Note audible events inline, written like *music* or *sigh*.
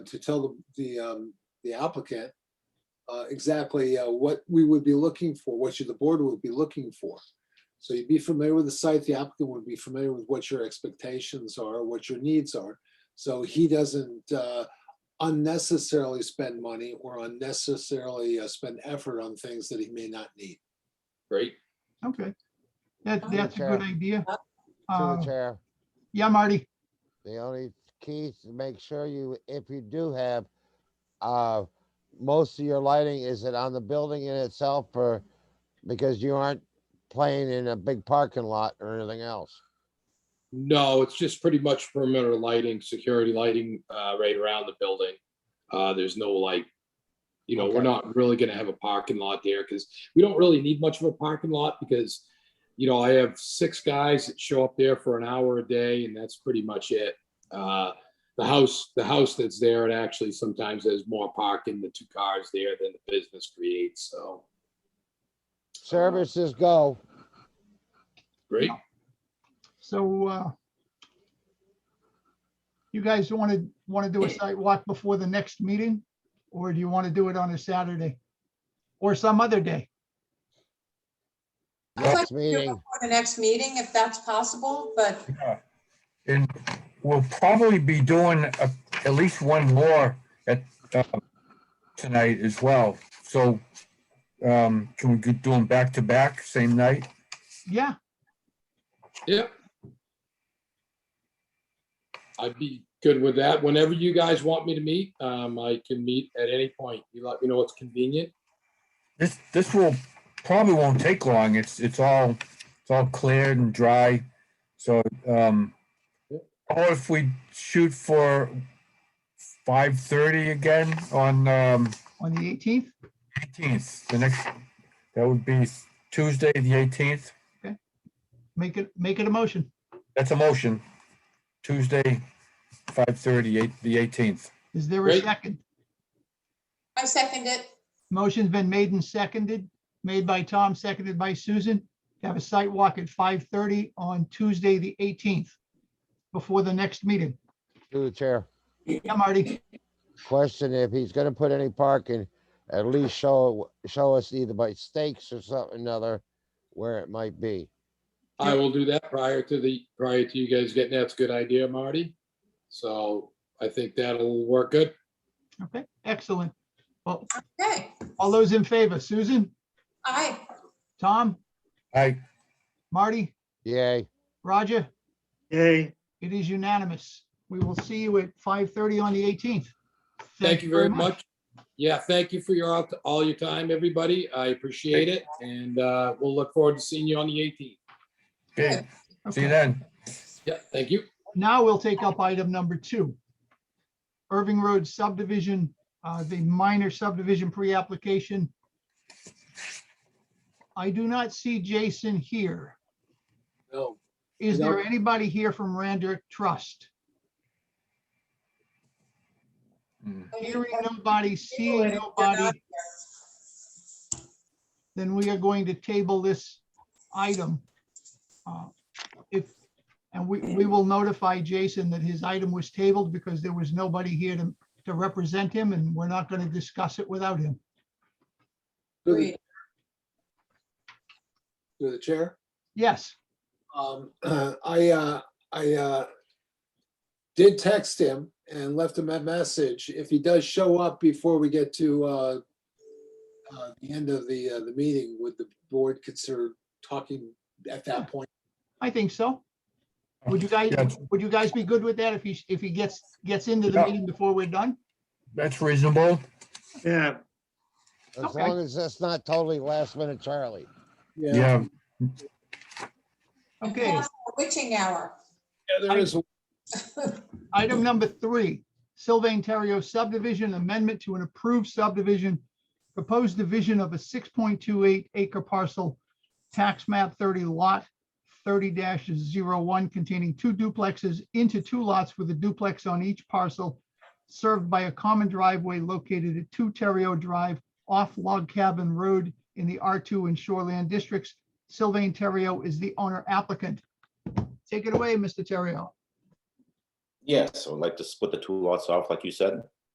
to tell the- the, um, the applicant uh, exactly uh, what we would be looking for, what you, the board would be looking for. So you'd be familiar with the site, the applicant would be familiar with what your expectations are, what your needs are. So he doesn't uh, unnecessarily spend money or unnecessarily uh, spend effort on things that he may not need. Great. Okay. That, Through the that's a good chair. idea. To the Uh, chair, Yeah, Marty, the only key is to make sure you, if you do have, uh, most of your lighting, is it on the building in itself or, because you aren't playing in a big parking lot or anything else? No, it's just pretty much perimeter lighting, security lighting, uh, right around the building. Uh, there's no like, you know, we're Okay. not really gonna have a parking lot there because we don't really need much of a parking lot because, you know, I have six guys that show up there for an hour a day and that's pretty much it. Uh, the house, the house that's there, it actually sometimes there's more parking, the two cars there than the business creates, so. Services go. Great. so, uh, you guys want to, want to do a site walk before the next meeting? Or do you want to do it on a Saturday? Or some other day? I'd like Next to do it meeting, before The next meeting, if that's possible, but Yeah, And we'll probably be doing a- at least one more at, uh, tonight as well. So um, can we do them back to back, same night? Yeah, Yep. I'd be good with that. Whenever you guys want me to meet, um, I can meet at any point. You let me know what's convenient. This, this will, probably won't take long. It's, it's all, it's all cleared and dry. So, um, or if we shoot for 5:30 again on, um, on the 18th? 18th, the next, that would be Tuesday, the 18th. Make it, make it a motion. That's a motion. Tuesday, five thirty, eight, the eighteenth. Is there a Great. second? I second it. Motion's been made and seconded, made by Tom, seconded by Susan. Have a site walk at 5:30 on Tuesday, the 18th, before the next meeting. to the chair. Yeah, Marty? Question, if he's gonna put any parking, at least show, show us either by stakes or something other where it might be. I will do that prior to the, prior to you guys getting that's a good idea, Marty. So I think that'll work good. Okay, excellent. Well, Okay, all those in favor, Susan, aye. Tom, I, Marty, Yay. Roger, Yay. it is unanimous. We will see you at 5:30 on the 18th. Thank you very much. Yeah, thank you for your, all your time, everybody. I appreciate it. And, uh, we'll look forward to seeing you on the 18th. okay, see Okay, you then. Yeah, thank you. Now we'll take up item number two. Irving Road subdivision, uh, the minor subdivision pre-application. I do not see Jason here. No, Is No. there anybody here from Rander Trust? Mm. Hearing nobody, seeing nobody. then we are going to table this item. Uh, If, and we, we will notify Jason that his item was tabled because there was nobody here to, to represent him and we're not going to discuss it without him. Through Agreed. the- through the chair. Yes, Um, *clears throat* I, uh, I, uh, did text him and left him a message. If he does show up before we get to, uh, uh, the end of the, uh, the meeting, would the board consider talking at that point? I think so. Would you guys, Yes. would you guys be good with that if he, if he gets, gets into the Yeah. meeting before we're done? That's reasonable. Yeah, As Okay. long as that's not totally last minute Charlie. Yeah, Okay, Impossible Witching hour. Yeah, there is. a- item number three, Sylvain Terrio subdivision amendment to an approved subdivision. Proposed division of a six point two eight acre parcel, tax map thirty lot thirty one containing two duplexes into two lots with a duplex on each parcel. Served by a common driveway located at two Terrio Drive off Log Cabin Road in the R two and Shoreland districts. Sylvain Terrio is the owner applicant. Take it away, Mr. Terrio. Yes, I would like to split the two lots off, like you said.